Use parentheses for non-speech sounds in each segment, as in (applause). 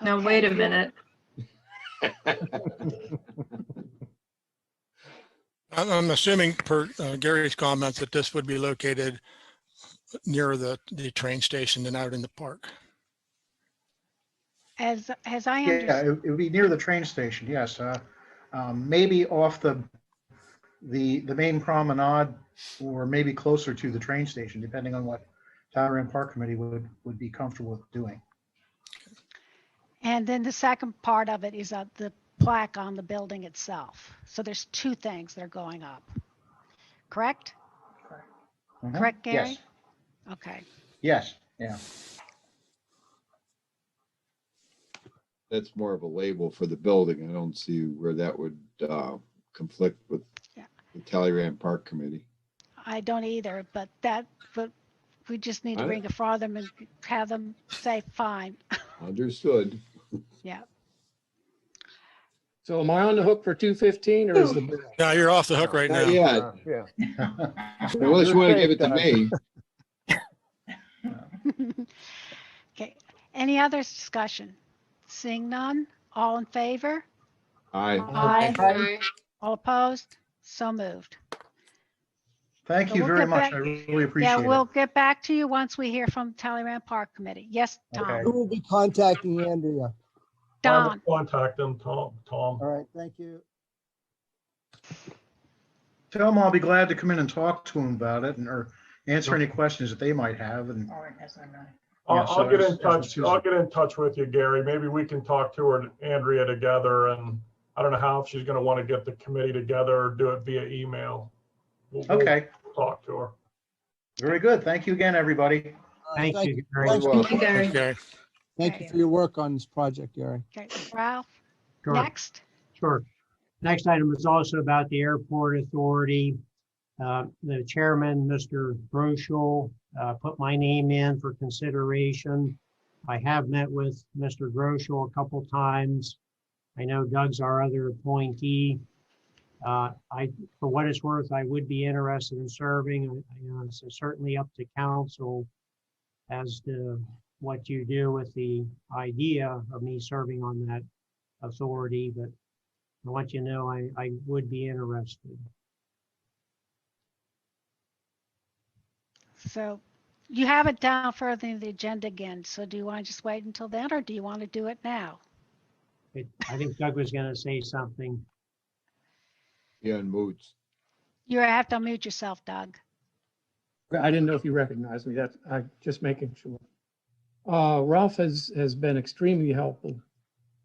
Now, wait a minute. I'm I'm assuming per uh, Gary's comments that this would be located nearer the, the train station than out in the park. As, as I Yeah, understand, it it would be near the train station, yes. uh, um, Maybe off the, the, the main promenade or maybe closer to the train station, depending on what Tower and Park Committee would, would be comfortable with doing. and then the second part of it is uh, the plaque on the building itself. So there's two things that are going up. Correct? Mhm. Correct, Yes. Gary? Okay. Yes, yeah. That's more of a label for the building. I don't see where that would uh, conflict with Yeah. the Talleyrand Park Committee. I don't either, but that, but we just need to I- bring it for them and have them say, fine. (laughs) Understood. So am I on the hook for two fifteen or is the, bill? Now, you're off the hook right Not now. yet, Yeah. unless you want to give it to me. Okay, any other discussion? Seeing none, all in favor, Aye. Aye. Aye. all opposed, so moved. Thank So you we'll very get much. back- I really Yeah, appreciate we'll it. get back to you once we hear from Talleyrand Park Committee. Yes, Okay. Who Tom, will be contacting Andrea? I will Don, Contact them, Tom, Tom. All right, thank you. Tell them I'll be glad to come in and talk to them about it and, or answer any questions that they might have and, Oh, it has a nine. Yeah, I'll, so I'll get it's- in it's touch, Susan. I'll get in touch with you, Gary. Maybe we can talk to her and Andrea together and I don't know how, if she's gonna want to get the committee together or do it via email. We'll- we'll okay, Talk to her. very good. Thank you again, everybody. Uh, Thank you. very Thanks, much. Gary. Thank you, Gary. Okay. Thank you for your work on this project, Gary. okay, Ralph, Sure, next. Sure. Next item is also about the airport authority. Uh, The chairman, Mr. Groschel, uh, put my name in for consideration. I have met with Mr. Groschel a couple times. I know Doug's our other appointee. Uh, I, for what it's worth, I would be interested in serving. I- I, uh, It's certainly up to council as to what you do with the idea of me serving on that authority, but I want you to know I, I would be interested. So you have it down further in the agenda again, so do you want to just wait until then, or do you want to do it now? It- I think Doug was gonna say something. Yeah, and moots. You have to unmute yourself, Doug. I didn't know if you recognized me. That's, I just making sure. Uh, Ralph has, has been extremely helpful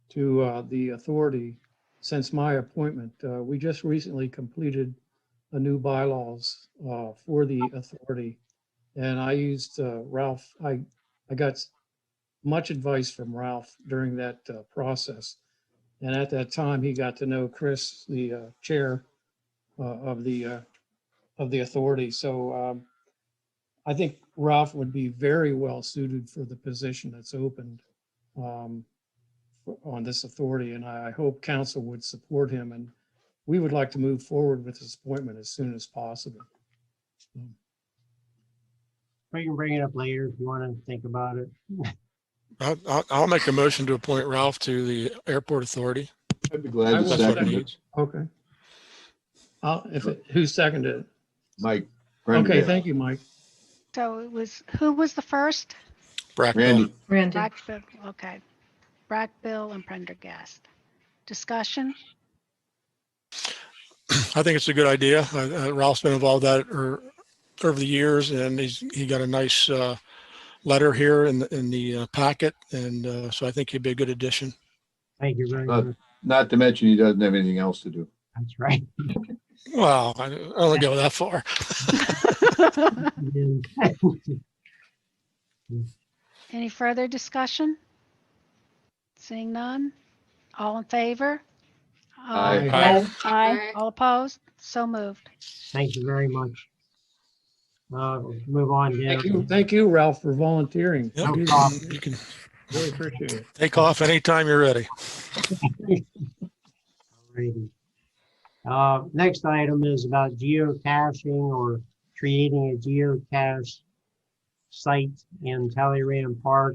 to, uh, the authority since my appointment. Uh, we just recently completed a new bylaws, uh, for the authority. And I used, uh, Ralph, I, I got s- much advice from Ralph during that, uh, process. And at that time, he got to know Chris, the, uh, chair, uh, of the, uh, of the authority. So, um, I think Ralph would be very well suited for the position that's opened um, for- on this authority, and I I hope council would support him, and we would like to move forward with this appointment as soon as possible. We can bring it up later if you wanna think about it. I'll, I'll, I'll make a motion to appoint Ralph to the airport authority. I'd be I glad to will second second. it. Okay. Uh, if, it- who seconded it? Mike. Okay, thank you, Mike. So it was, who was the first? Brackville. Randy, Randy. Brackville, okay. Brackville and Prendergast. Discussion? I think it's a good idea. Uh, uh, Ralph's been involved that er, over the years and he's, he got a nice uh, letter here in, the- in the uh, packet. And uh, so I think he'd be a good addition. Thank you very Uh, much. not to mention he doesn't have anything else to do. That's right. (laughs) Wow, I I don't go that far. And- Any further discussion? Seeing none? All in favor? Aye. Aye. Aye. All opposed? So moved. Thank you very much. Uh, we'll move on Thank you, down. thank you, Ralph, for volunteering. Yep. You- You can Really appreciate it. take off anytime you're ready. Alrighty. Uh, next item is about geocaching or creating a geocache site in Talleyrand Park.